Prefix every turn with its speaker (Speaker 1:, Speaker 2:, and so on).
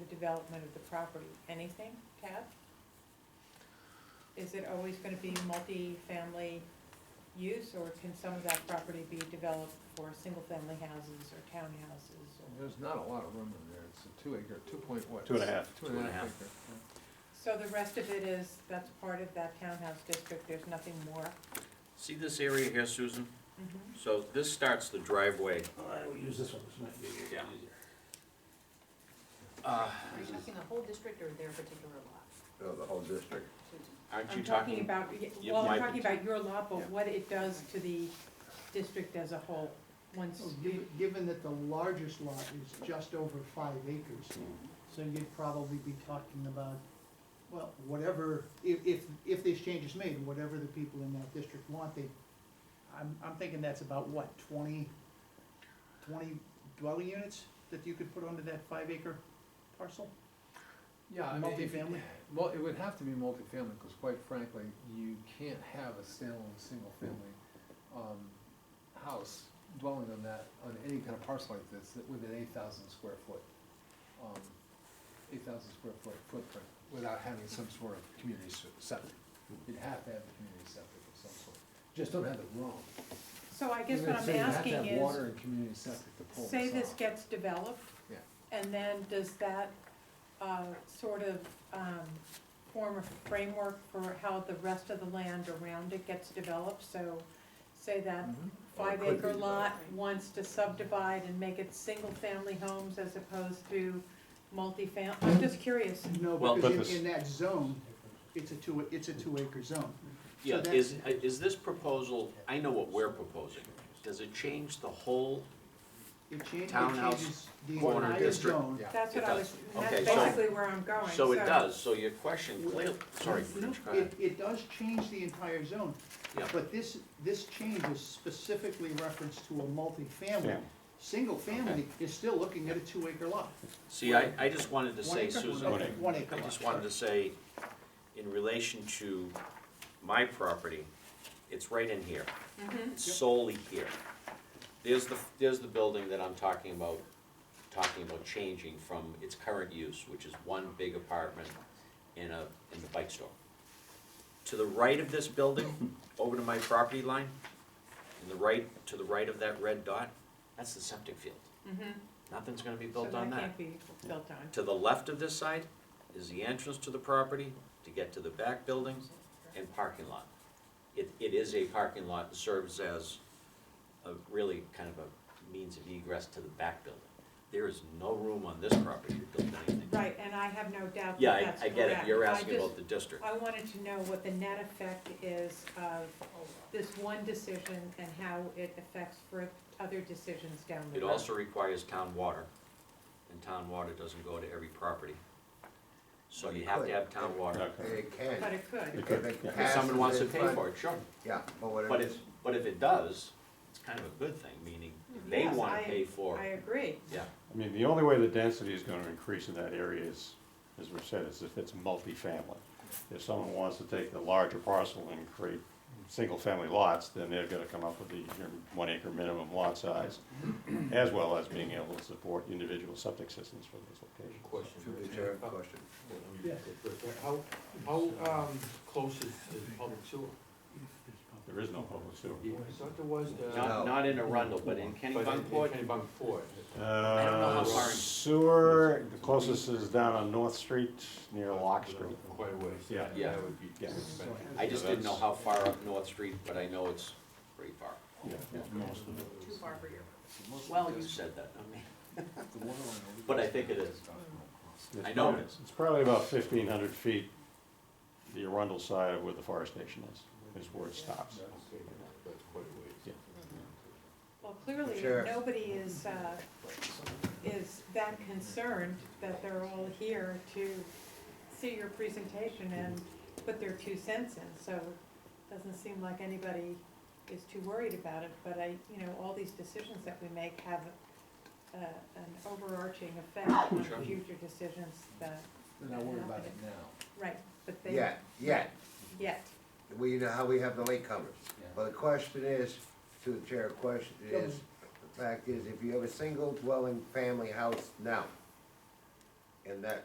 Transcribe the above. Speaker 1: development of the property, anything, Tab? Is it always gonna be multi-family use, or can some of that property be developed for single-family houses or townhouses? or-
Speaker 2: There's not a lot of room in there, it's a two acre, two point what?
Speaker 3: Two and a half.
Speaker 2: Two and a half acre.
Speaker 1: So the rest of it is, that's part of that townhouse district, there's nothing more?
Speaker 4: See this area here, Susan? So this starts the driveway.
Speaker 5: I will use this one, this might be
Speaker 4: Yeah.
Speaker 5: easier.
Speaker 4: Uh,
Speaker 6: Are you talking the whole district or their particular lot?
Speaker 7: No, the whole district.
Speaker 6: Susan?
Speaker 4: Aren't you
Speaker 1: I'm talking
Speaker 4: talking?
Speaker 1: about,
Speaker 4: you
Speaker 1: well, I'm
Speaker 4: might
Speaker 1: talking
Speaker 4: be-
Speaker 1: about your lot,
Speaker 7: Yeah.
Speaker 1: but what it does to the district as a whole,
Speaker 2: Oh,
Speaker 1: once
Speaker 8: Well,
Speaker 1: you
Speaker 8: given, given that the largest lot is just over five acres,
Speaker 4: Hmm.
Speaker 8: so you'd probably be talking about, well, whatever, if, if, if this change is made, whatever the people in that district want, they, I'm, I'm thinking that's about what, 20 20 dwelling units that you could put onto that five acre parcel?
Speaker 2: Yeah, Uh, I mean, if,
Speaker 8: Multifamily?
Speaker 2: well, it would have to be multifamily, because quite frankly, you can't have a standalone, single-family, um, house dwelling on that, on any kind of parcel like this, that within eight thousand square foot, um, eight thousand square foot footprint, without having some sort of community se- septic. You'd have to have a community septic of some sort, just don't have it wrong.
Speaker 1: So I guess
Speaker 2: Even
Speaker 1: what
Speaker 2: if
Speaker 1: I'm
Speaker 2: they
Speaker 1: asking
Speaker 2: have to have water
Speaker 1: is,
Speaker 2: and community septic to pull
Speaker 1: say
Speaker 2: this
Speaker 1: this
Speaker 2: off.
Speaker 1: gets developed,
Speaker 2: Yeah.
Speaker 1: and then does that, uh, sort of, um, form a framework for how the rest of the land around it gets developed? So, say that
Speaker 3: Mm-hmm.
Speaker 2: Mhm.
Speaker 7: Or
Speaker 1: five
Speaker 7: it could be
Speaker 1: acre lot
Speaker 6: developed.
Speaker 1: wants to subdivide and make it single-family homes as opposed to multifam, I'm just curious.
Speaker 8: No,
Speaker 4: Well,
Speaker 8: because
Speaker 3: purpose.
Speaker 8: in, in that zone, it's a two, it's a two acre zone.
Speaker 4: Yeah,
Speaker 8: So
Speaker 4: is, uh, is this proposal, I know what we're proposing. Does it change the whole?
Speaker 8: It changes, it
Speaker 4: Townhouse
Speaker 8: changes the
Speaker 4: corner
Speaker 8: entire
Speaker 4: district,
Speaker 8: zone.
Speaker 2: yeah.
Speaker 1: That's what
Speaker 4: It
Speaker 1: I was,
Speaker 4: does.
Speaker 1: that's
Speaker 4: Okay, so-
Speaker 1: basically where I'm going,
Speaker 4: So it does, so your question clearly, sorry,
Speaker 8: No,
Speaker 4: Rich, go
Speaker 8: It,
Speaker 4: ahead.
Speaker 8: it does change the entire zone,
Speaker 4: Yeah.
Speaker 8: but this, this change is specifically referenced to a multifamily.
Speaker 3: Family.
Speaker 8: Single family is still looking at a two acre lot.
Speaker 4: See, I, I just wanted to
Speaker 8: One
Speaker 4: say,
Speaker 8: acre?
Speaker 4: Susan,
Speaker 3: One acre.
Speaker 8: One acre
Speaker 4: I
Speaker 8: lot.
Speaker 4: just wanted to say, in relation to my property, it's right in here. It's solely here. There's the, there's the building that I'm talking about, talking about changing from its current use, which is one big apartment in a, in the bike store. To the right of this building, over to my property line, in the right, to the right of that red dot, that's the septic field.
Speaker 1: Mhm.
Speaker 4: Nothing's gonna be
Speaker 1: So
Speaker 4: built
Speaker 1: that
Speaker 4: on that.
Speaker 1: can't be built on.
Speaker 4: To the left of this side is the entrance to the property to get to the back buildings and parking lot. It, it is a parking lot that serves as a really kind of a means of egress to the back building. There is no room on this property to build anything.
Speaker 1: Right, and I have no doubt
Speaker 4: Yeah,
Speaker 1: that that's correct.
Speaker 4: I, I get it, you're asking
Speaker 1: just-
Speaker 4: about the district.
Speaker 1: I wanted to know what the net effect is of this one decision and how it affects for other decisions down the
Speaker 4: It
Speaker 1: road.
Speaker 4: also requires town water, and town water doesn't go to every property. So you have to have town water,
Speaker 7: They
Speaker 1: But
Speaker 7: can,
Speaker 1: it could,
Speaker 7: if it
Speaker 3: If
Speaker 4: if
Speaker 7: passes.
Speaker 4: someone wants to
Speaker 7: in
Speaker 4: pay
Speaker 7: front-
Speaker 4: for it, sure.
Speaker 7: Yeah, but what
Speaker 4: But
Speaker 7: it is,
Speaker 4: if, but if it does, it's kind of a good thing, meaning they
Speaker 1: Yes,
Speaker 4: wanna
Speaker 1: I-
Speaker 4: pay for,
Speaker 1: I agree.
Speaker 4: yeah,
Speaker 3: I mean, the only way the density is gonna increase in that area is, as we've said, is if it's multifamily. If someone wants to take the larger parcel and create single-family lots, then they're gonna come up with the your one-acre minimum lot size, as well as being able to support individual septic systems for those locations.
Speaker 5: Question.
Speaker 7: to the chair question.
Speaker 5: Yeah. How, how, um, close is the public sewer?
Speaker 3: There is no public sewer.
Speaker 5: I thought there was the.
Speaker 4: not,
Speaker 7: No.
Speaker 4: not in Arundel, but in
Speaker 5: But in- in
Speaker 4: Kennebunkport,
Speaker 5: Kennebunkport.
Speaker 4: I don't know how
Speaker 3: Uh,
Speaker 4: far in-
Speaker 3: Sewer, the closest is down on North Street, near Lock Street.
Speaker 5: Quite a ways.
Speaker 3: Yeah.
Speaker 4: Yeah.
Speaker 5: That would be
Speaker 3: Yeah.
Speaker 5: expensive.
Speaker 4: I just didn't know how far up North Street, but I know it's pretty far.
Speaker 3: Yeah, most of it.
Speaker 6: Too far for your.
Speaker 4: Well, you said that, I mean, But I think it is.
Speaker 3: It's
Speaker 4: I know
Speaker 3: probably-
Speaker 4: it is.
Speaker 3: It's probably about fifteen hundred feet, the Arundel side of where the fire station is, is where it stops.
Speaker 5: Okay, That's quite a ways.
Speaker 3: Yeah.
Speaker 1: Well, clearly,
Speaker 7: Sure.
Speaker 1: nobody is, uh, is that concerned that they're all here to see your presentation and put their two cents in, so it doesn't seem like anybody is too worried about it, but I, you know, all these decisions that we make have uh, an overarching effect on
Speaker 4: Sure.
Speaker 1: future decisions that,
Speaker 2: They're not worried about it now.
Speaker 1: right, but they,
Speaker 7: Yet, yet,
Speaker 1: yet.
Speaker 7: we, know how we have the latecomers.
Speaker 2: Yeah.
Speaker 7: But the question is, to the chair, question is, the fact is, if you have a single dwelling family house now, and that